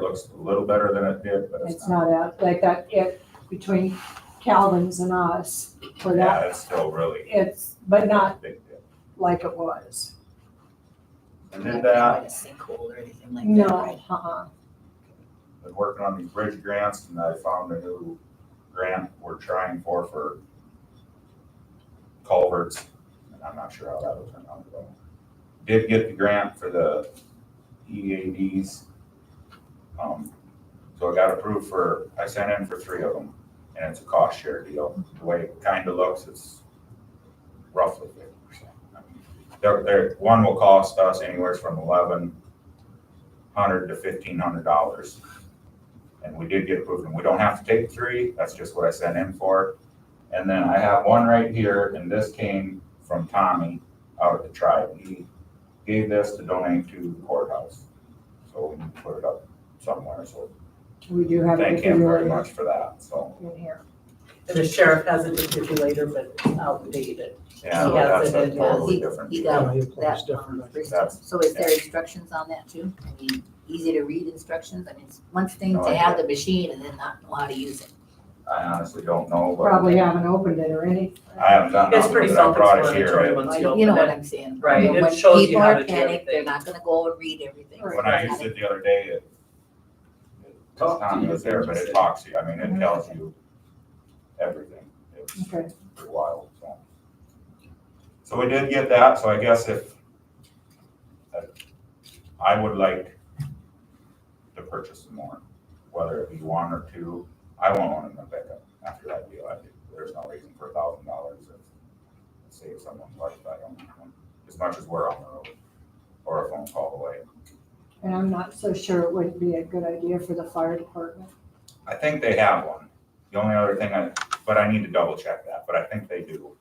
looks a little better than it did, but it's It's not. not out, like that, it, between Calvin's and us, for that, Yeah, it's still really it's, but not big dip. like it was. And Not did that, like a sinkhole or anything like that, right? No, uh-uh. been working on these bridge grants and I found a new grant we're trying for, for culverts. And I'm not sure how that will turn out. but Did get the grant for the EADs. Um, So I got approved for, I sent in for three of them and it's a cost share deal. The way it kind of looks, it's roughly fifty percent. There, there, one will cost us anywhere from eleven hundred to fifteen hundred dollars. And we did get approved, and we don't have to take three, that's just what I sent in for. And then I have one right here, and this came from Tommy out of the tribe. He gave this to donate to the courthouse. So we need to put it up somewhere, so We do have. thank it him very really much for that, so. In here. The sheriff has a defibrillator, but it's outdated. Yeah, Yeah, that's so a then, yeah, totally uh, he- different. he deal. got Yeah, your plate's that different. on the first That's- one. So is there instructions on that too? I mean, easy to read instructions? I mean, it's one thing No to have the machine and then not know how to use it. I honestly don't know, Probably but haven't opened it or any, I haven't done It's nothing pretty with it, I brought it self-explanatory here. once Like, you You know open what it. I'm saying? You Right, know, it when shows you how to People do are panicked, they're everything. not gonna go and read everything. When I used it the other day, it, it's Talk to not you. was there, but it talks to you, I mean, it tells you everything. It's okay. pretty wild, so. So we did get that, so I guess if, uh, I would like to purchase some more, whether it be one or two. I won't own them back up after that deal, I think there's no reason for a thousand dollars to save someone's life, I don't, know, as much as we're on the road, or a phone call away. And I'm not so sure it wouldn't be a good idea for the fire department. I think they have one. The only other thing I, but I need to double check that, but I think they do.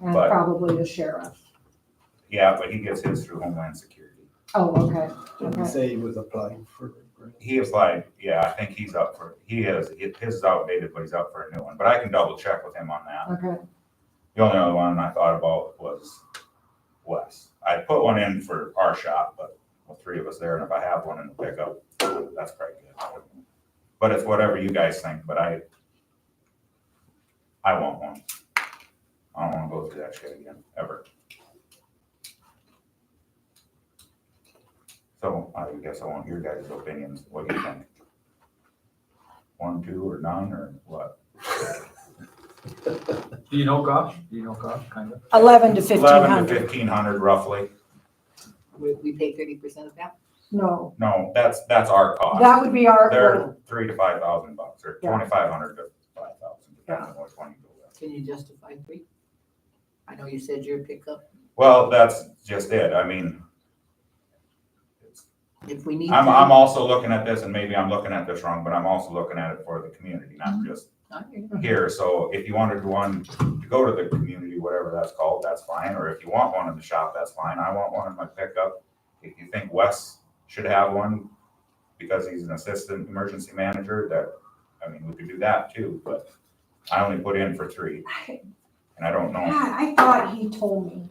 And But- probably the sheriff. Yeah, but he gets his through Homeland Security. Oh, okay, Didn't say he was applying for a grant. He applied, yeah, I think he's up for, he is, it- his is outdated, but he's up for a new one, but I can double check with him on that. okay. The only other one I thought about was Wes. I put one in for our shop, but the three of us there, and if I have one in the pickup, that's probably good. But it's whatever you guys think, but I, I want one. I don't wanna go through that shit again, ever. So I guess I want your guys' opinions, what do you think? One, two, or none, or what? Do you know Gosh? Do you know Gosh, kind of? Eleven to fifteen Eleven to hundred. fifteen hundred roughly. We, we pay thirty percent of that? No, No, that's, that's our cost. that would be our. They're three to five thousand bucks, or Yeah. twenty-five hundred to five thousand, depending on which one you go with. Can you justify three? I know you said your pickup, Well, that's just it, I mean, it's- if we need to. I'm, I'm also looking at this, and maybe I'm looking at this wrong, but I'm also looking at it for the community, not Mm-hmm. just Not here. Mhm. here, so if you wanted one to go to the community, whatever that's called, that's fine, or if you want one in the shop, that's fine, I want one in my pickup. If you think Wes should have one, because he's an assistant emergency manager, that, I mean, we could do that too, but I only put in for three, and I don't know, God, I thought he told me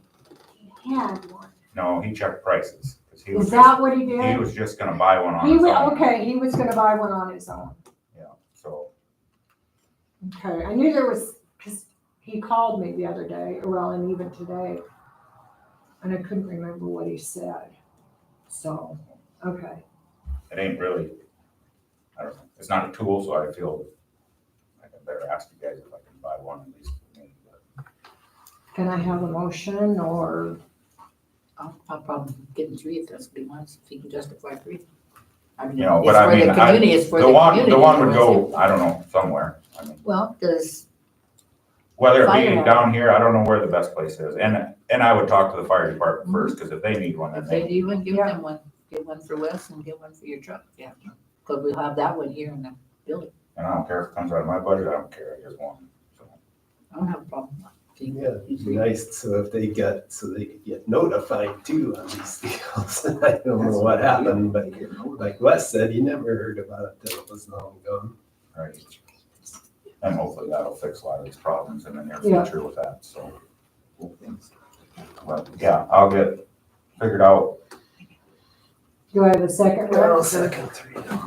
he had one. no, he checked prices, because he was Is just, that what he he did? was just gonna buy one on He his wa, own, okay, he was gonna buy one on his own. so, Okay, I knew there was, because he called me the other day, well, and even today, and I couldn't remember what he said. So, okay, it ain't really, I don't know, it's not a tool, so I feel like I better ask you guys if I can buy one at least for me, but. can I have a motion or, I'll, I'll probably give him three if that's what he wants, if he can justify three. I mean, You know, it's but I for the mean, I- community, it's for The one, the community, one would otherwise it- go, I don't know, somewhere. I mean, Well, does, Whether it be Fire. down here, I don't know where the best place is. And, and I would talk to the fire department first, because if they need one, then if they, they do one, give Yeah. them one, give one for Wes and give one for your truck, yeah. Cause we'll have that one here in the building, and I don't care if it comes out of my budget, I don't care, I just want. them. So, I don't have a problem. Can you- Yeah, it'd be nice, so if they get, so they could get notified too on these deals. I don't know what happened, but like Wes said, he never heard about it till it was long gone. Right. And hopefully that'll fix a lot of these problems in the near Yeah. future with that, so. But, yeah, I'll get figured out do I have a second? Rex, or- second three now.